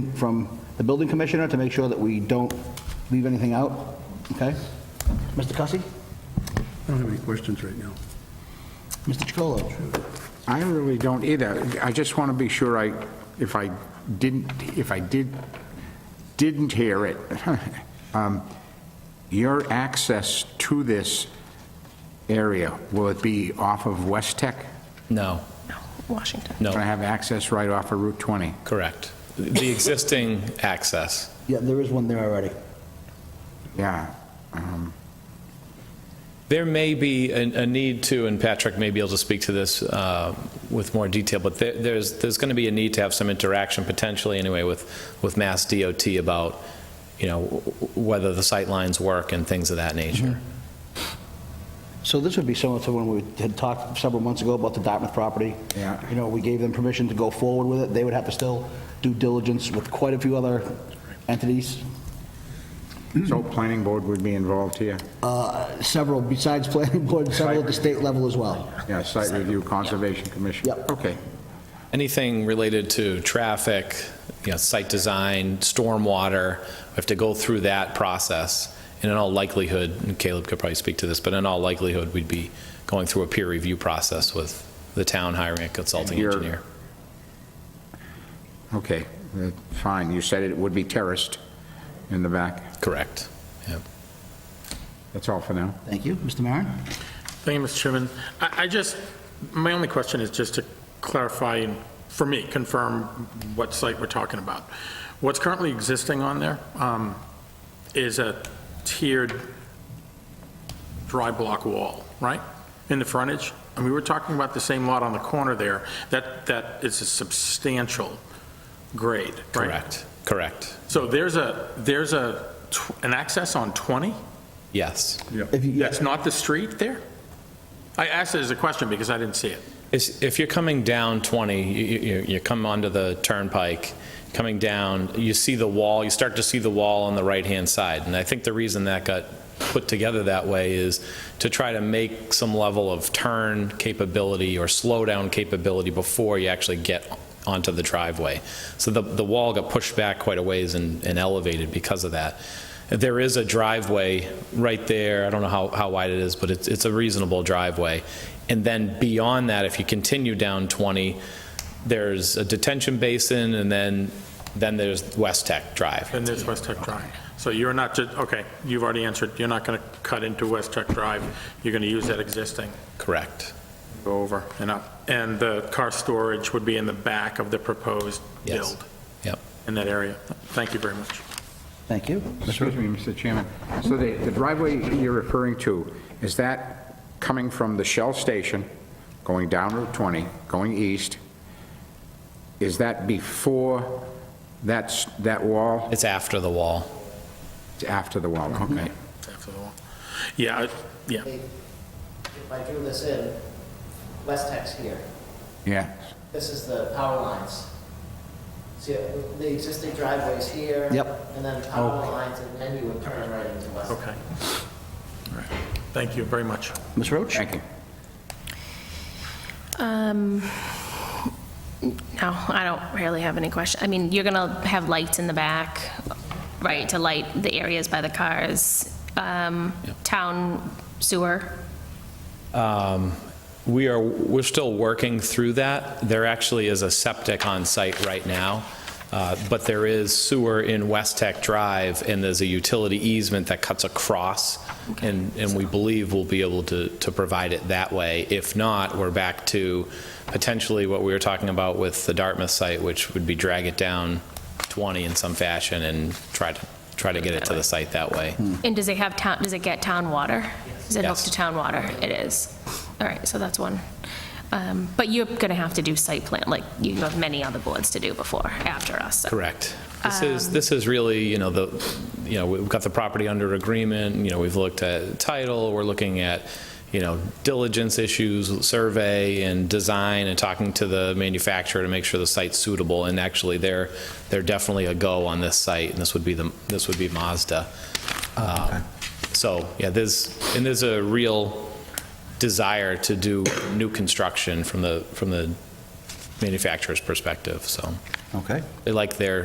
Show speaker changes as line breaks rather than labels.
from the building commissioner to make sure that we don't leave anything out, okay? Mr. Cussy?
I don't have any questions right now.
Mr. Chacolo?
I really don't either. I just want to be sure I, if I didn't, if I did, didn't hear it, um, your access to this area, will it be off of West Tech?
No,
Washington.
Can I
no,
have access right off of Route 20?
correct. The existing access.
Yeah, there is one there already.
Yeah.
There may be a a need to, and Patrick may be able to speak to this uh, with more detail, but there- there's, there's going to be a need to have some interaction potentially anyway with, with Mass DOT about, you know, w- w- whether the sight lines work and things of that nature.
So this would be similar to when we had talked several months ago about the Dartmouth property.
Yeah.
You know, we gave them permission to go forward with it. They would have to still do diligence with quite a few other entities,
So planning board would be involved here?
uh, several besides planning board, several at the state level as well.
Yeah, site review, conservation commission?
Yep.
Okay.
Anything related to traffic, you know, site design, stormwater, we have to go through that process. And in all likelihood, and Caleb could probably speak to this, but in all likelihood, we'd be going through a peer review process with the town hiring a consulting
And you're-
engineer.
Okay, uh, fine. You said it would be terraced in the back.
Correct. Yeah.
That's all for now.
Thank you. Mr. Maron?
Thank you, Mr. Chairman. I I just, my only question is just to clarify, and for me, confirm what site we're talking about. What's currently existing on there um, is a tiered dry block wall, right? In the frontage? And we were talking about the same lot on the corner there. That, that is a substantial grade, right?
Correct. Correct.
So there's a, there's a, tw- an access on 20?
Yes.
If you-
That's not the street there? I asked it as a question because I didn't see it.
Is- If you're coming down 20, you- you you come onto the turnpike, coming down, you see the wall, you start to see the wall on the right-hand side. And I think the reason that got put together that way is to try to make some level of turn capability or slow-down capability before you actually get onto the driveway. So the the wall got pushed back quite a ways and and elevated because of that. There is a driveway right there, I don't know how how wide it is, but it's it's a reasonable driveway. And then beyond that, if you continue down 20, there's a detention basin, and then, then there's West Tech Drive.
And there's West Tech Drive. So you're not, ju- okay, you've already answered, you're not going to cut into West Tech Drive. You're going to use that existing,
Correct.
go over and up. And the car storage would be in the back of the proposed
Yes.
build
Yep.
in that area. Thank you very much.
Thank you.
Excuse me, Mr. Chairman. So the the driveway you're referring to, is that coming from the Shell Station, going down Route 20, going east? Is that before that's, that wall?
It's after the wall.
It's after the wall, okay.
After the wall. Yeah, I- yeah,
If I drew this in, West Tech's here.
Yeah.
This is the power lines. See, the existing driveway's here.
Yep.
And then power lines, and then you would turn right into West Tech.
okay. All right. Thank you very much.
Ms. Roach?
Thank you.
Um, no, I don't really have any question. I mean, you're gonna have lights in the back, right, to light the areas by the cars. Um, town sewer,
Um, We are, we're still working through that. There actually is a septic on site right now, uh, but there is sewer in West Tech Drive, and there's a utility easement that cuts across, and, and we believe we'll be able to, to provide it that way. If not, we're back to potentially what we were talking about with the Dartmouth site, which would be drag it down 20 in some fashion and try to, try to get it to the site that way.
and does it have town, does it get town water? Is it hooked
Yes.
to town water? It is. All right, so that's one. Um, but you're gonna have to do site plan, like you have many other boards to do before, after us, so.
Correct. This is, this is really, you know, the, you know, we've got the property under agreement, you know, we've looked at title, we're looking at, you know, diligence issues, survey and design, and talking to the manufacturer to make sure the site's suitable, and actually, they're, they're definitely a go on this site, and this would be the, this would be Mazda. Um, So, yeah, there's, and there's a real desire to do new construction from the, from the manufacturer's perspective, so.
Okay.
They like their